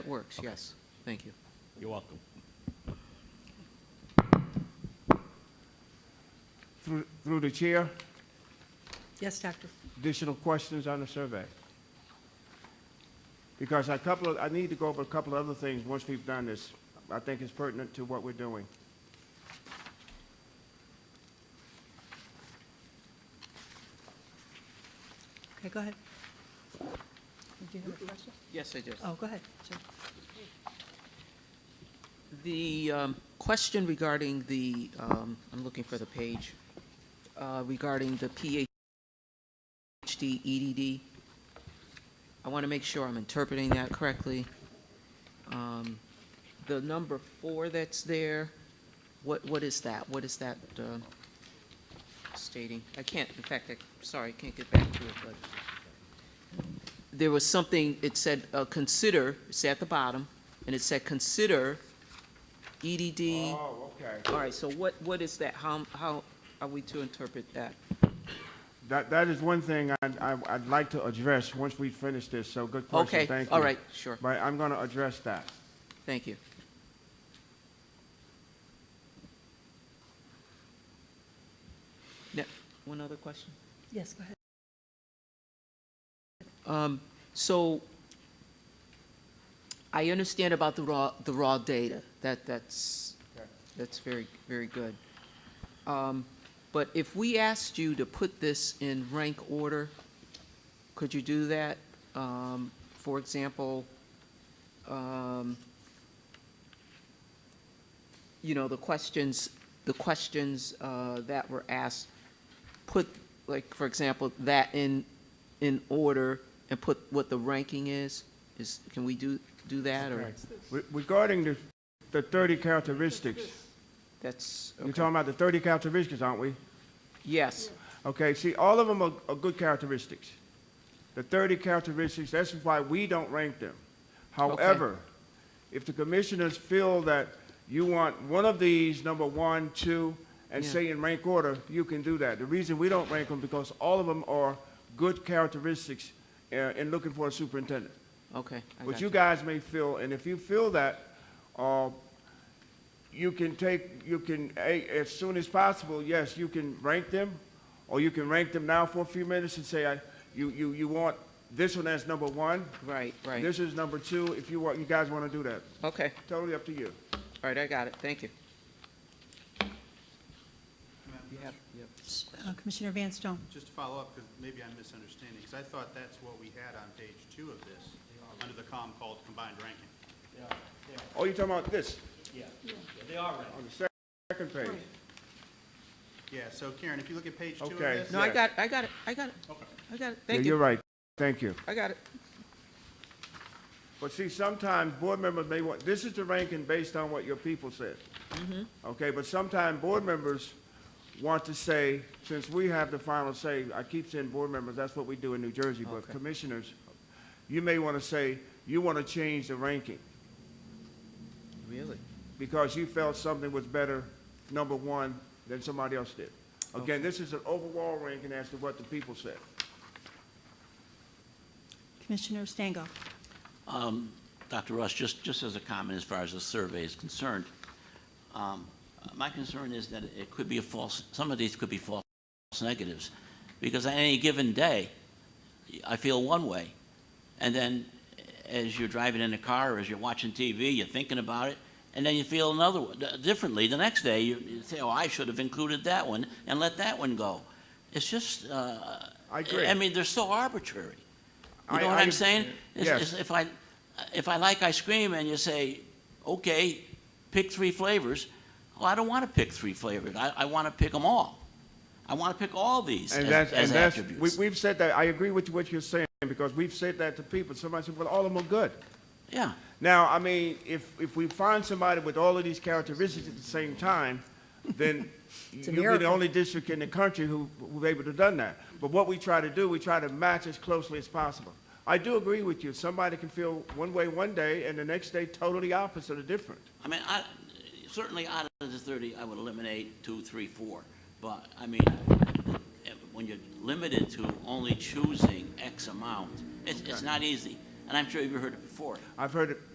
works, yes. Thank you. You're welcome. Through through the chair, Yes, Doctor. additional questions on the survey? Because a couple of, I need to go over a couple of other things once we've done this. I think it's pertinent to what we're doing. Okay, go ahead. Did you have a question? Yes, I do. Oh, go ahead. sir. The um, question regarding the, um, I'm looking for the page, uh, regarding the PhD EDD, E I want to make sure I'm interpreting that correctly. Um, The number four that's there, what, what is that? What is that uh, stating? I can't, in fact, I, sorry, I can't get back to it, but there was something, it said, uh, consider, it's at the bottom, and it said, consider E EDD. Oh, okay. All right, so what, what is that? How, how are we to interpret that? That, that is one thing I'd, I- I'd like to address once we finish this, so good question, Okay, thank you. all right, sure, But I'm going to address that. thank you. Now, one other question? Yes, go ahead. Um, So I understand about the raw, the raw data. That, that's, that's very, very good. Um, But if we asked you to put this in rank order, could you do that? Um, For example, um, you know, the questions, the questions uh, that were asked, put, like, for example, that in, in order and put what the ranking is? Is, can we do, do that, or? Okay. Re- Regarding the, the 30 characteristics, That's, you're okay. talking about the 30 characteristics, aren't we? yes, Okay, see, all of them are, are good characteristics. The 30 characteristics, that's why we don't rank them. However, if the commissioners feel that you want one of these, number one, two, and Yeah. say in rank order, you can do that. The reason we don't rank them, because all of them are good characteristics uh, in looking for a superintendent. okay. I But got you guys may feel, and if you feel that, uh, you can take, you can, a- as soon as possible, yes, you can rank them, or you can rank them now for a few minutes and say, I- you, you, you want this one as number one, Right, right, this is number two, if you want, you guys want to do that. okay, Totally up to you. all right, I got it, thank you. You have- yep. S- uh, Commissioner Van Stone. Just to follow up, because maybe I'm misunderstanding, because I thought that's what we had on page two of this, under the column called combined ranking. Oh, you're talking about this, They are ready. on the sec- second page? Yeah, so Karen, if you look at page two of Okay. this. No, I Yes. got, I got it, I got it, I got it, Yeah, thank you're you, right, thank you. I got it, But see, sometimes board members may want, this is the ranking based on what your people said. Okay, but sometimes board members want to say, since we have the final say, I keep saying board members, that's what we do in New Jersey, but Okay. commissioners, you may want to say, you want to change the ranking really? because you felt something was better, number one, than somebody else did. Again, this is an overall ranking as to what the people said. Commissioner Stango. Um, Dr. Russ, just, just as a comment as far as the survey is concerned, um, my concern is that it could be a false, some of these could be false negatives, because on any given day, I feel one way, and then as you're driving in the car, or as you're watching TV, you're thinking about it, and then you feel another, one- differently, the next day, you you say, oh, I should have included that one, and let that one go. It's just, uh, I agree. I mean, they're so arbitrary. You I- know what I- I'm saying? It's- Yes. it's- If I, if I like ice cream and you say, okay, pick three flavors, well, I don't want to pick three flavors. I, I want to pick them all. I want to pick all these And as, that's, and as that's, we, attributes. we've said that, I agree with what you're saying because we've said that to people. Somebody said, well, all of them are good. Yeah, Now, I mean, if, if we find somebody with all of these characteristics at the same time, then a you'll be the miracle. only district in the country who, who's able to have done that. But what we try to do, we try to match as closely as possible. I do agree with you. Somebody can feel one way one day and the next day totally opposite or different. I mean, I, certainly out of the thirty, I would eliminate two, three, four. But, I mean, when you're limited to only choosing X amount, it's, it's not easy. And I'm sure you've heard it before. I've heard it